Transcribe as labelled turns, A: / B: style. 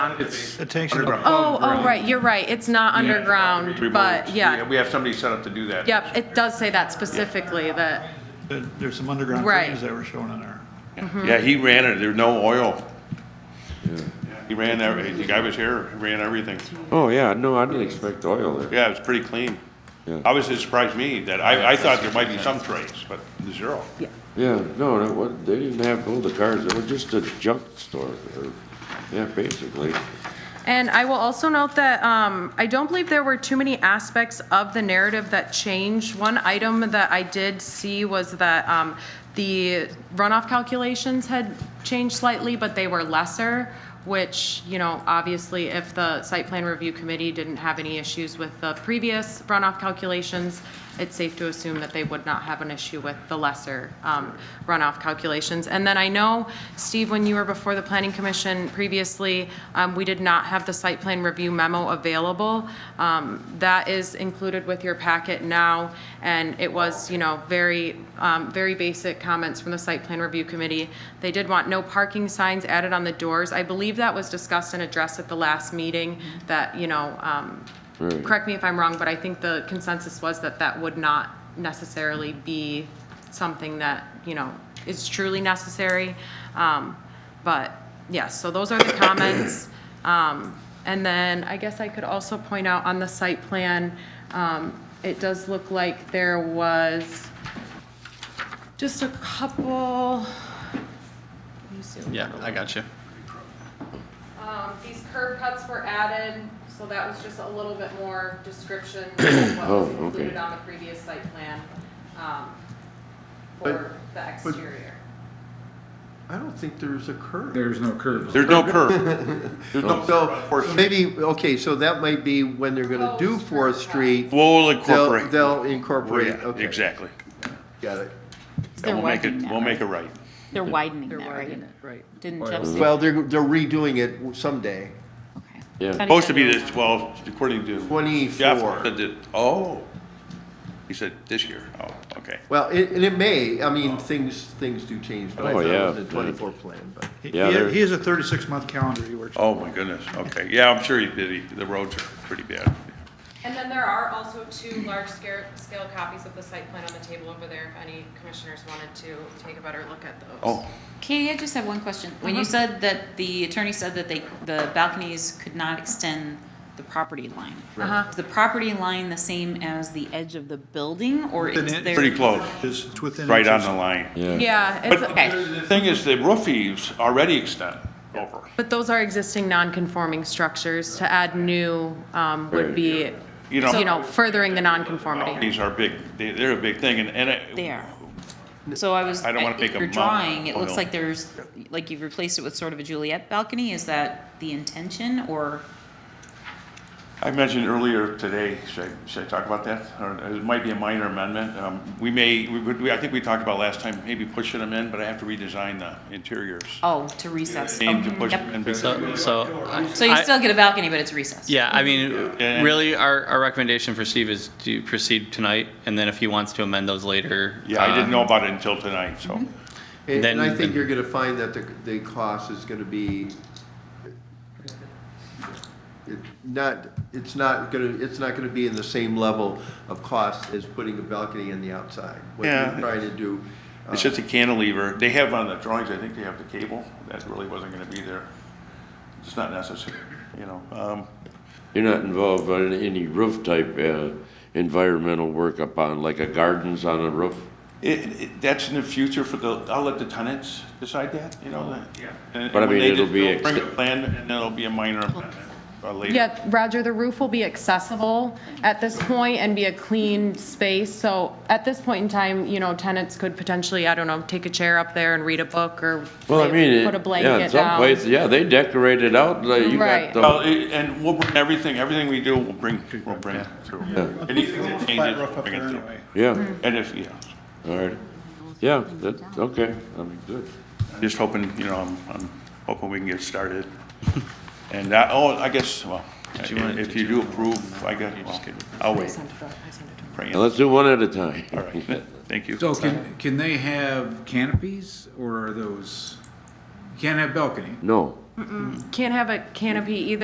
A: It's
B: It takes it
A: underground.
C: Oh, oh, right, you're right, it's not
A: Yeah, it'd have to be
C: underground, but
A: removed.
C: yeah,
A: We have somebody set up to do that.
C: yep, it does say that specifically, that,
B: There- There's some underground
C: Right.
B: things that were shown in there.
A: Mm-hmm. Yeah, he ran it, there's no oil. He ran every, the guy was here, he ran everything.
D: Oh, yeah, no, I didn't expect oil there.
A: Yeah, it's pretty clean.
D: Yeah.
A: Obviously, it surprised me that, I, I thought there might be some trace, but zero.
D: Yeah, no, it wa- they didn't have all the cars, it was just a junk store, or, yeah, basically.
C: And I will also note that um, I don't believe there were too many aspects of the narrative that changed. One item that I did see was that um, the runoff calculations had changed slightly, but they were lesser, which, you know, obviously, if the site plan review committee didn't have any issues with the previous runoff calculations, it's safe to assume that they would not have an issue with the lesser um, runoff calculations. And then I know, Steve, when you were before the planning commission previously, um, we did not have the site plan review memo available. Um, That is included with your packet now, and it was, you know, very, um, very basic comments from the site plan review committee. They did want no parking signs added on the doors. I believe that was discussed and addressed at the last meeting, that, you know, um,
D: Right.
C: correct me if I'm wrong, but I think the consensus was that that would not necessarily be something that, you know, is truly necessary. Um, But, yes, so those are the comments. Um, And then I guess I could also point out on the site plan, um, it does look like there was just a couple, let me zoom
E: Yeah, I got you.
C: um, these curb cuts were added, so that was just a little bit more description of what was
D: Oh, okay.
C: included on the previous site plan, um, for the exterior.
F: I don't think there's a curve.
G: There's no curve.
A: There's no curb. There's no curb.
F: So maybe, okay, so that might be when they're gonna do
C: Proposed
F: Fourth
C: curve
F: Street.
A: We'll
F: They'll,
A: incorporate.
F: they'll incorporate,
A: Yeah,
F: okay.
A: Exactly.
F: Got it.
A: And we'll make it, we'll make it right.
H: They're widening that, right? Right. Didn't
E: Oh,
H: Jeff say?
F: Well, they're, they're redoing it someday.
H: Okay.
D: Yeah.
H: Thought he
A: Supposed to
H: said
A: be
H: no.
A: this twelve, according to. Jeff
F: Twenty-four.
A: said that- oh, he said this year, oh, okay.
F: Well, it, and it may, I mean, things, things do change, but I
D: Oh,
F: thought
D: yeah,
F: it was a
D: yeah.
F: twenty-four plan, but.
B: He-
D: Yeah,
B: he-
D: there-
B: He has a 36-month calendar he works.
A: Oh, my goodness, okay, yeah, I'm sure he's busy, the roads are pretty bad.
C: And then there are also two large scale, scale copies of the site plan on the table over there, if any commissioners wanted to take a better look at those.
A: Oh,
H: Katie, I just have one question. When
E: Uh-huh.
H: you said that the attorney said that they, the balconies could not extend the property line.
C: Uh-huh.
H: Is the property line the same as the edge of the building or
B: Within
H: is
B: it.
H: there?
A: pretty close,
B: It's it's within.
A: right on
B: inches.
A: the line.
D: Yeah,
C: Yeah,
A: But
C: it's,
H: Okay.
A: the thing is, the roof eaves already extend over.
C: but those are existing non-conforming structures, to add new, um, would be,
A: You
C: you
A: know-
C: know, furthering the non-conformity.
A: These are big, they- they're a big thing, and, and. it-
H: There. So I was,
A: I don't wanna
H: if
A: make a Oh,
H: you're
A: mountain
H: drawing, it
A: out of
H: looks
A: oil.
H: like there's, like you've replaced it with sort of a Juliet balcony. Is that the intention or?
A: I mentioned earlier today, should I, should I talk about that? Or it might be a minor amendment. Um, we may, we, would- we, I think we talked about last time, maybe pushing them in, but I have to redesign the interiors.
H: Oh, to recess.
A: Aim to
H: Oh,
A: push
H: yep.
A: them in.
E: So, so. I-
H: So you
E: I-
H: still get a balcony, but it's recessed.
E: Yeah, I mean,
A: And-
E: really, our, our recommendation for Steve is to proceed tonight, and then if he wants to amend those later.
A: Yeah, I
E: uh,
A: didn't know about it until tonight, so.
F: And
E: Then-
F: and I think you're gonna find that the, the cost is gonna be, it- not, it's not gonna, it's not gonna be in the same level of cost as putting a balcony in the outside. What
A: Yeah.
F: you're trying to do. uh,
A: It's just a cantilever. They have on the drawings, I think they have the cable. That really wasn't gonna be there. It's not necessary, you know, um,
D: you're not involved in any roof type, uh, environmental work up on, like a gardens on a roof?
A: It, it, that's in the future for the, I'll let the tenants decide that, you know, that. And-
D: But I
A: and when
D: mean,
A: they
D: it'll
A: just-
D: be
A: they'll Bring a
D: ex-
A: plan and then it'll be a minor amendment or later.
C: Yeah, Roger, the roof will be accessible at this point and be a clean space. So at this point in time, you know, tenants could potentially, I don't know, take a chair up there and read a book or
D: Well, I mean,
C: put a
D: it- yeah, in
C: blanket
D: some
C: down.
D: places, yeah, they decorate it out, like you
C: Right.
D: got the.
A: Well, it- and we'll bring everything, everything we do, we'll bring, we'll bring it through. Anything that
B: Flat
A: changes,
B: roof
A: we'll
B: up
A: bring it
B: there
A: through.
B: anyway.
D: Yeah,
A: And if, yeah,
D: all right, yeah, that's, okay, I mean, good.
A: just hoping, you know, I'm, I'm hoping we can get started. And I, oh, I guess, well,
E: you want-
A: if
E: did
A: you
E: you
A: do
E: want-
A: approve, I guess, well, I'll wait. Bring it.
D: Now, let's do one at a time.
A: All right, thank you.
G: So can, can they have canopies or are those, you can't have balcony?
D: No,
C: Can't have a canopy either.